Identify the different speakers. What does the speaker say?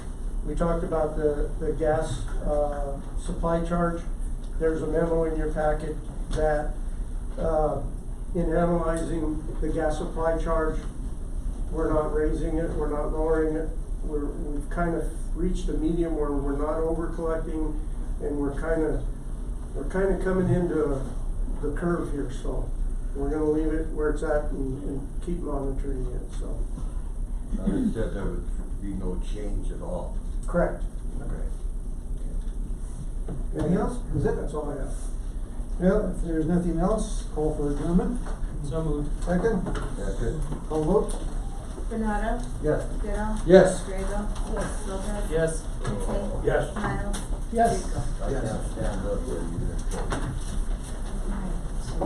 Speaker 1: We talked about the, the gas, uh, supply charge. There's a memo in your packet that, uh, in analyzing the gas supply charge, we're not raising it, we're not lowering it. We're, we've kind of reached a medium where we're not over collecting and we're kind of, we're kind of coming into the curve here, so we're gonna leave it where it's at and, and keep monitoring it, so.
Speaker 2: Now, they said there would be no change at all.
Speaker 1: Correct.
Speaker 2: Okay.
Speaker 3: Anything else? Is it?
Speaker 1: That's all I have.
Speaker 3: Yeah, if there's nothing else, call for adjournment.
Speaker 4: So moved.
Speaker 3: Second,
Speaker 2: That's it?
Speaker 3: call vote.
Speaker 5: Benado,
Speaker 2: Yes.
Speaker 5: Goodall.
Speaker 3: Yes.
Speaker 5: Grego. Yes. Lopez.
Speaker 4: Yes.
Speaker 5: Lindsey.
Speaker 2: Yes.
Speaker 5: Miles.
Speaker 3: Yes.
Speaker 5: Rico.
Speaker 2: I can't stand up there, you didn't.